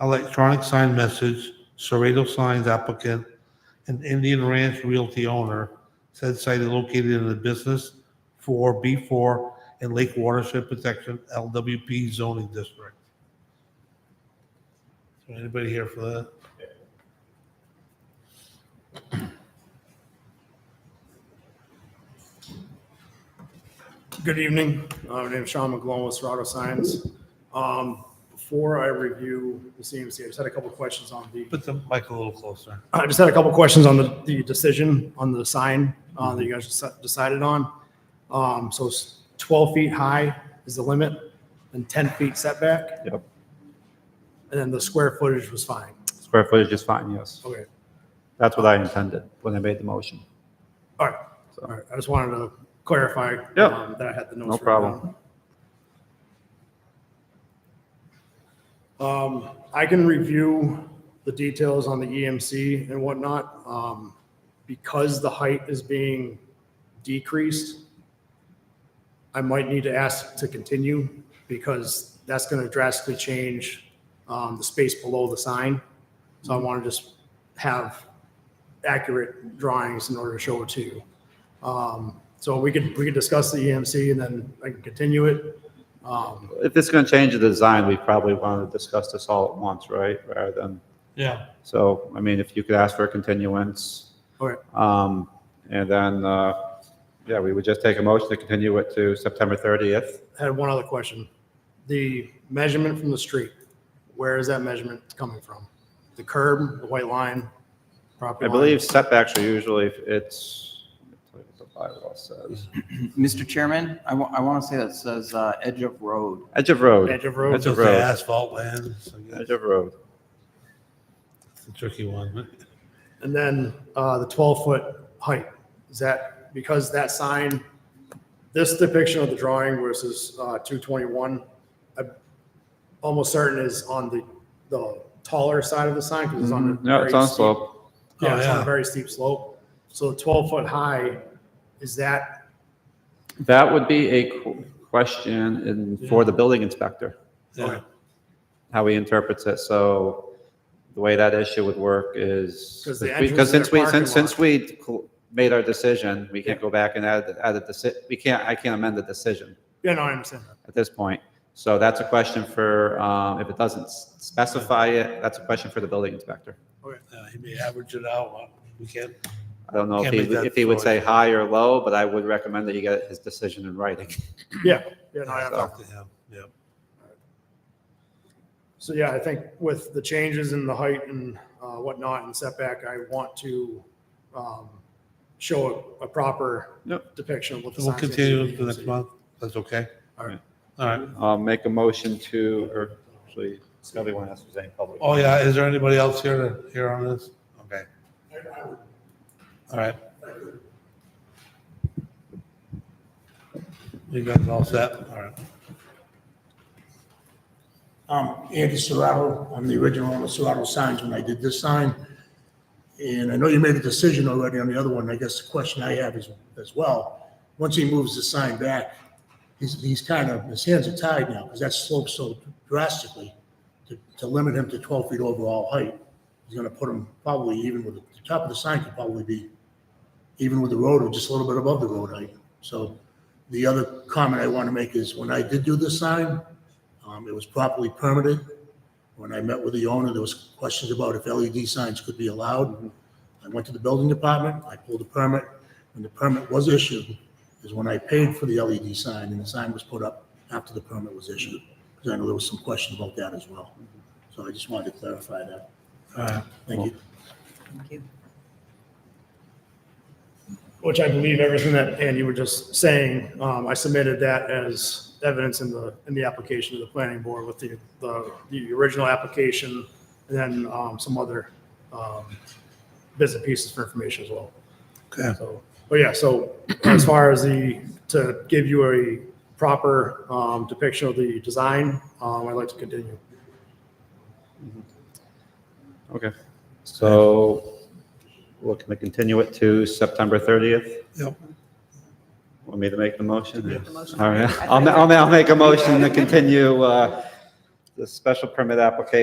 electronic sign message, Serrato Signs applicant, and Indian Ranch Realty owner. Said site is located in the business for B4 and Lake Watershed Protection LWP zoning district. Is there Anybody here for that? Good evening. Uh, My name is Sean McGlone with Serato Science. Um, Before I review the CMC, I just had a couple questions on the, Put the mic a little closer. I just had a couple questions on the, the decision on the sign uh, that you guys deci- decided on. Um, So it's 12 feet high is the limit and 10 feet setback. Yep. And then the square footage was fine. Square footage is fine, yes. Okay, That's what I intended when I made the motion. all right. So- All right, I just wanted to clarify Yeah. um, that I had the notes. No written problem. down. Um, I can review the details on the EMC and whatnot. um, Because the height is being decreased, I might need to ask to continue because that's going to drastically change um, the space below the sign. So I want to just have accurate drawings in order to show it to you. Um, so we could, we could discuss the EMC and then I can continue it. Um, If it's going to change the design, we probably want to discuss this all at once, right? Rather than, Yeah. so, I mean, if you could ask for a continuance. Okay. Um, and then, uh, yeah, we would just take a motion to continue it to September 30th. I had one other question. The measurement from the street, where is that measurement coming from? The curb, the white line, I property line? believe setbacks are usually, it's, let me tell you what the bylaw says. Mr. Chairman, I want to say that says uh, edge of road. Edge of road, Edge of road? Edge Just of the road. asphalt land, so yeah, edge of road. it's a tricky one. but- And then uh, the 12-foot height, is that, because that sign, this depiction of the drawing versus uh, 221, I'm almost certain is on the, the taller side of the sign because it's on a. Mm-hmm. No, it's very on steep- slope. Yeah, Oh, it's on yeah. a very steep slope. So 12-foot high, is that, That would be a qu- question in, for the building inspector. Yeah. how he interprets it. So the way that issue would work is, 'Cause the entrance because is their since we, parking since, since we cl- made our decision, we can't go back and add, add a deci, we can't, I can't amend the decision yeah, no, I understand that. at this point. So that's a question for, um, if it doesn't s- specify it, that's a question for the building inspector. Yeah, He may average it out. We can't, I don't know if Can't he, make that if he would say choice. high or low, but I would recommend that you get his decision in writing. Yeah, yeah, no, I understand. talk to him. Yeah. So yeah, I think with the changes in the height and uh, whatnot and setback, I want to um, show a a proper Yep. depiction of what the So we'll sign is. continue to next month. That's okay? All right. All right. I'll make a motion to, or actually, Scotty wants to say public. Oh, yeah, is there anybody else here to hear on this? Okay. All right. You guys all set? All right. Um, Andy Serrato, I'm the original owner of Serrato Signs when I did this sign. And I know you made a decision already on the other one. I guess the question I have is as well, once he moves the sign back, he's, he's kind of, his hands are tied now because that slopes so drastically to, to limit him to 12 feet overall height. He's going to put him probably even with, the top of the sign could probably be even with the road or just a little bit above the road height. So the other comment I want to make is when I did do this sign, um, It was properly permitted. When I met with the owner, there was questions about if LED signs could be allowed. I went to the building department, I pulled a permit. When the permit was issued is when I paid for the LED sign, and the sign was put up after the permit was issued. Because I know there was some question about that as well. So I just wanted to clarify that. All right. Thank you. Which I believe everything that Andy was just saying, um, I submitted that as evidence in the, in the application to the planning board with the, the, the original application and then um, some other um, bits and pieces for information as well. Okay. So, but yeah, so as far as the, to give you a proper um, depiction of the design, um, I'd like to continue. Okay, so looking to continue it to September 30th? Yep. Want me to make the motion? Make the motion. All right, I'll, ma- I'll, ma- I'll make a motion to continue, uh, the special permit application